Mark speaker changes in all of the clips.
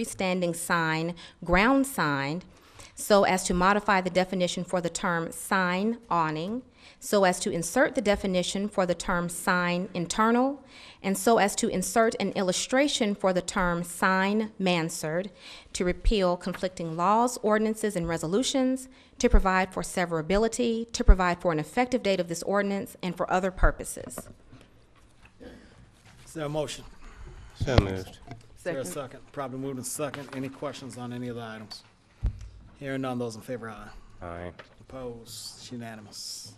Speaker 1: freestanding sign, ground sign, so as to modify the definition for the term sign awning, so as to insert the definition for the term sign internal, and so as to insert an illustration for the term sign mansard, to repeal conflicting laws, ordinances, and resolutions, to provide for severability, to provide for an effective date of this ordinance, and for other purposes.
Speaker 2: Is there a motion?
Speaker 3: So moved.
Speaker 2: Is there a second? Probably moved in second. Any questions on any of the items? Hearing none, those in favor, aye.
Speaker 3: Aye.
Speaker 2: Opposed, It's unanimous.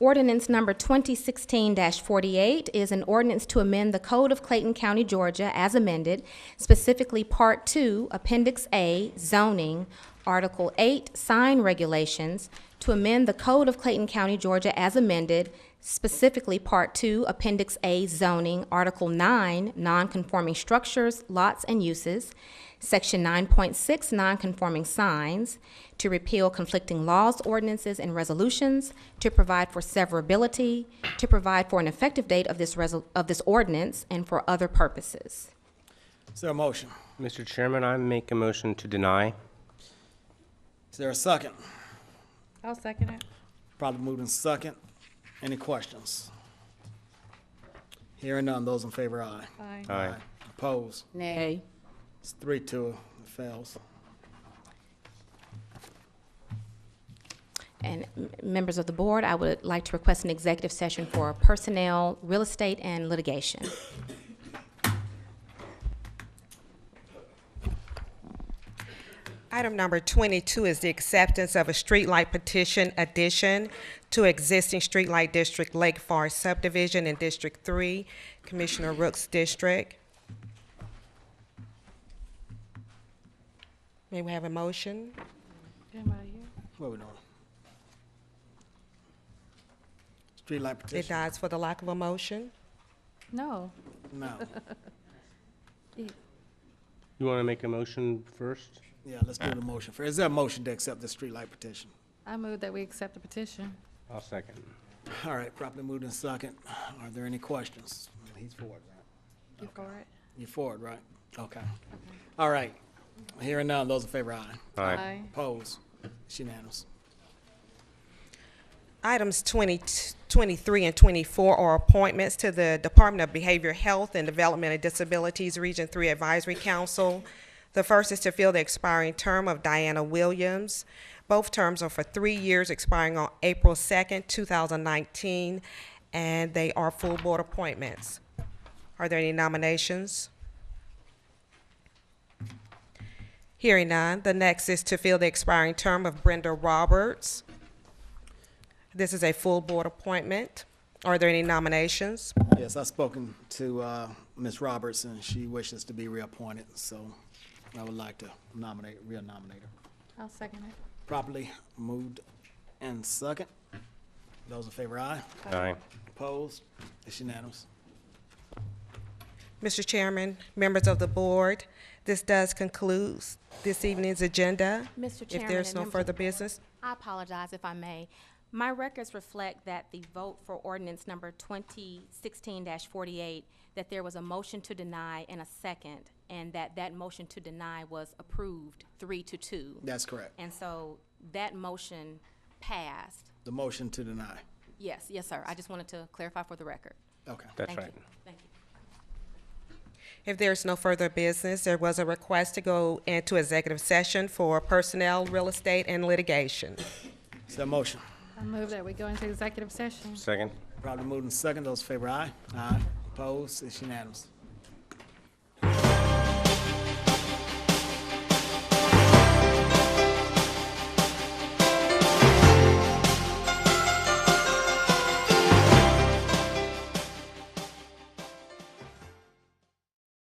Speaker 1: Ordinance number 2016-48 is an ordinance to amend the Code of Clayton County, Georgia as amended, specifically Part 2, Appendix A, zoning, Article 8, sign regulations, to amend the Code of Clayton County, Georgia as amended, specifically Part 2, Appendix A, zoning, Article 9, nonconforming structures, lots, and uses, Section 9.6, nonconforming signs, to repeal conflicting laws, ordinances, and resolutions, to provide for severability, to provide for an effective date of this resol, of this ordinance, and for other purposes.
Speaker 2: Is there a motion?
Speaker 3: Mr. Chairman, I make a motion to deny.
Speaker 2: Is there a second?
Speaker 4: I'll second it.
Speaker 2: Probably moved in second. Any questions? Hearing none, those in favor, aye.
Speaker 4: Aye.
Speaker 3: Aye.
Speaker 2: Opposed,
Speaker 4: Nay.
Speaker 2: it's three, two, it fails.
Speaker 1: And m- members of the board, I would like to request an executive session for personnel, real estate, and litigation.
Speaker 5: Item number 22 is the acceptance of a streetlight petition addition to existing streetlight district Lake Forest subdivision in District 3, Commissioner Rooks' district. May we have a motion?
Speaker 4: Anybody here?
Speaker 2: What we doing? Streetlight
Speaker 5: It
Speaker 2: petition?
Speaker 5: dies for the lack of a motion.
Speaker 4: No.
Speaker 2: No.
Speaker 3: You want to make a motion first?
Speaker 2: Yeah, let's do the motion. first. Is there a motion to accept the streetlight petition?
Speaker 4: I move that we accept the petition.
Speaker 3: I'll second.
Speaker 2: All right, properly moved in second. Are there any questions? He's forward, right?
Speaker 4: You for it?
Speaker 2: You're forward, right? Okay. All right. Hearing none, those in favor, aye.
Speaker 3: Aye.
Speaker 2: Opposed? It's unanimous.
Speaker 5: Items 20, 23 and 24 are appointments to the Department of Behavioral Health and Development and Disabilities Region 3 Advisory Council. The first is to fill the expiring term of Diana Williams. Both terms are for three years, expiring on April 2nd, 2019, and they are full board appointments. Are there any nominations? Hearing none, the next is to fill the expiring term of Brenda Roberts. This is a full board appointment. Are there any nominations?
Speaker 2: Yes, I've spoken to uh, Ms. Roberts, and she wishes to be reappointed, so I would like to nominate, re-nominate her.
Speaker 4: I'll second it.
Speaker 2: Properly moved and second. Those in favor, aye.
Speaker 3: Aye.
Speaker 2: Opposed? It's unanimous.
Speaker 5: Mr. Chairman, members of the board, this does conclude this evening's agenda.
Speaker 1: Mr.
Speaker 5: If
Speaker 1: Chairman
Speaker 5: there's
Speaker 1: and
Speaker 5: no
Speaker 1: members of
Speaker 5: further
Speaker 1: the board.
Speaker 5: business,
Speaker 1: I apologize if I may. My records reflect that the vote for ordinance number twenty sixteen forty-eight, that there was a motion to deny and a second, and that that motion to deny was approved three to two.
Speaker 2: That's correct.
Speaker 1: And so that motion passed.
Speaker 2: The motion to deny.
Speaker 1: Yes, yes, sir. I just wanted to clarify for the record.
Speaker 2: Okay.
Speaker 3: That's
Speaker 1: Thank you.
Speaker 3: right.
Speaker 1: Thank you.
Speaker 5: if there's no further business, there was a request to go into executive session for personnel, real estate, and litigation.
Speaker 2: Is there a motion?
Speaker 4: I move that we go into executive session.
Speaker 3: Second.
Speaker 2: Properly moved and second. Those in favor, aye. Aye. Opposed? It's unanimous.